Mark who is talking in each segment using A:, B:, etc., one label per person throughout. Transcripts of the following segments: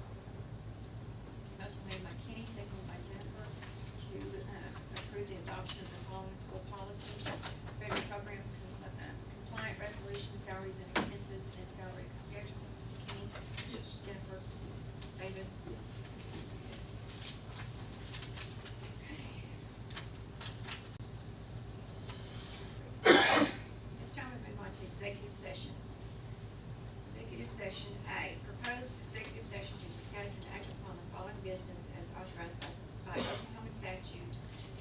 A: uh, uh,
B: Session A, proposed executive session to discuss and act upon the following business as authorized by by Oklahoma statute,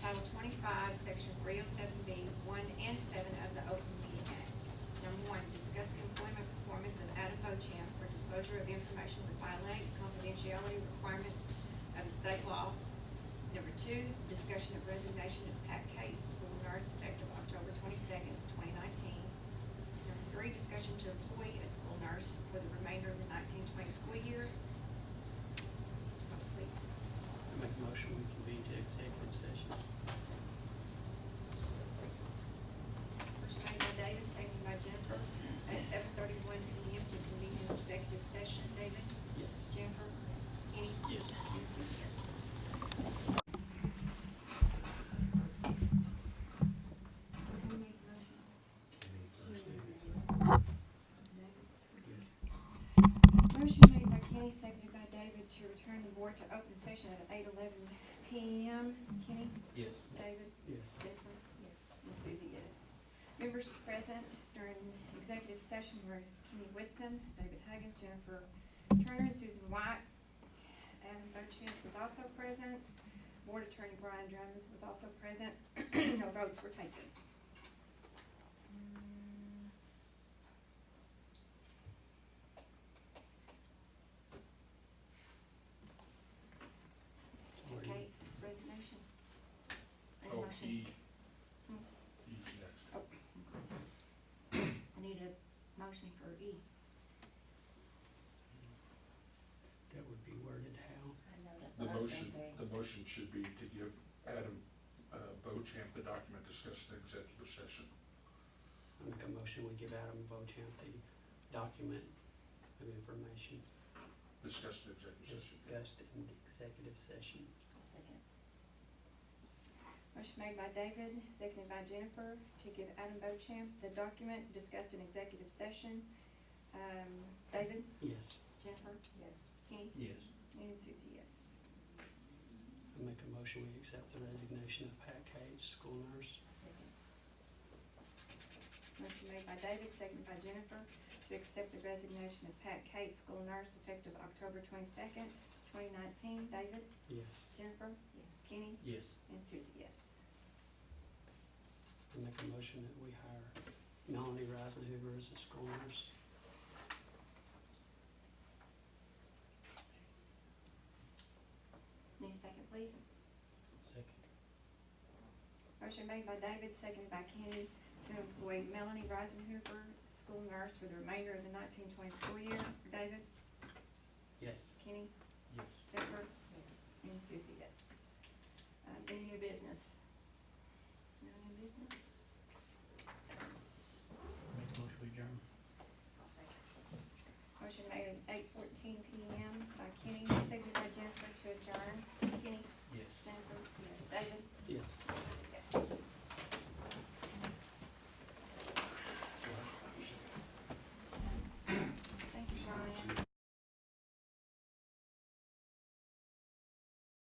B: Title twenty-five, Section three oh seven B, one and seven of the Open Meeting Act. Number one, discuss the employment performance of Adam Bochamp for disclosure of information that violate confidentiality requirements of the state law. Number two, discussion of resignation of Pat Cates, school nurse, effective October twenty-second, twenty nineteen. Number three, discussion to employ a school nurse for the remainder of the nineteen twenty school year. Vote, Please.
C: I make a motion, we convene to executive session.
B: First made by David, second by Jennifer, at seven thirty-one P M to convene an executive session. David?
C: Yes.
B: Jennifer? Kenny?
C: Yes.
B: Susie, yes.
A: Motion made by Kenny, seconded by David to return the board to open session at eight eleven PM. Kenny?
C: Yes.
A: David?
C: Yes.
A: Jennifer? Yes. And Susie, yes. Members present during executive session were Kenny Whitson, David Huggins, Jennifer Turner, and Susan White. Adam Bochamp was also present. Board Attorney Brian Drums was also present. No votes were taken.
C: Sorry.
A: Kate's resignation. And
D: Oh,
A: motion.
D: she,
A: Hmm.
D: she's next.
A: I need a motion for E.
C: That would be worded how?
E: I know, that's
D: The
E: what I was gonna
D: motion,
E: say.
D: the motion should be to give Adam uh, Bochamp the document discussed in executive session.
C: I make a motion, we give Adam Bochamp the document of information
D: Discussed in executive session.
C: discussed in the executive session.
E: I'll second.
A: Motion made by David, seconded by Jennifer, to give Adam Bochamp the document discussed in executive session. Um, David,
C: Yes.
A: Jennifer,
E: Yes.
A: Kenny,
C: Yes.
A: and Susie, yes.
C: I make a motion, we accept the resignation of Pat Cates, school nurse.
E: I'll Second.
A: Motion made by David, seconded by Jennifer, to accept the resignation of Pat Kate, school nurse, effective October twenty-second, twenty nineteen. David,
C: Yes.
A: Jennifer,
E: Yes.
A: Kenny,
C: Yes.
A: and Susie, yes.
C: I make a motion that we hire Melanie Risenhuber as a school nurse.
A: Need a second, please?
C: Second.
A: Motion made by David, seconded by Kenny, to employ Melanie Risenhuber, school nurse, for the remainder of the nineteen twenty school year. David,
C: Yes.
A: Kenny,
C: Yes.
A: Jennifer,
E: Yes.
A: and Susie, yes. Uh, any new business?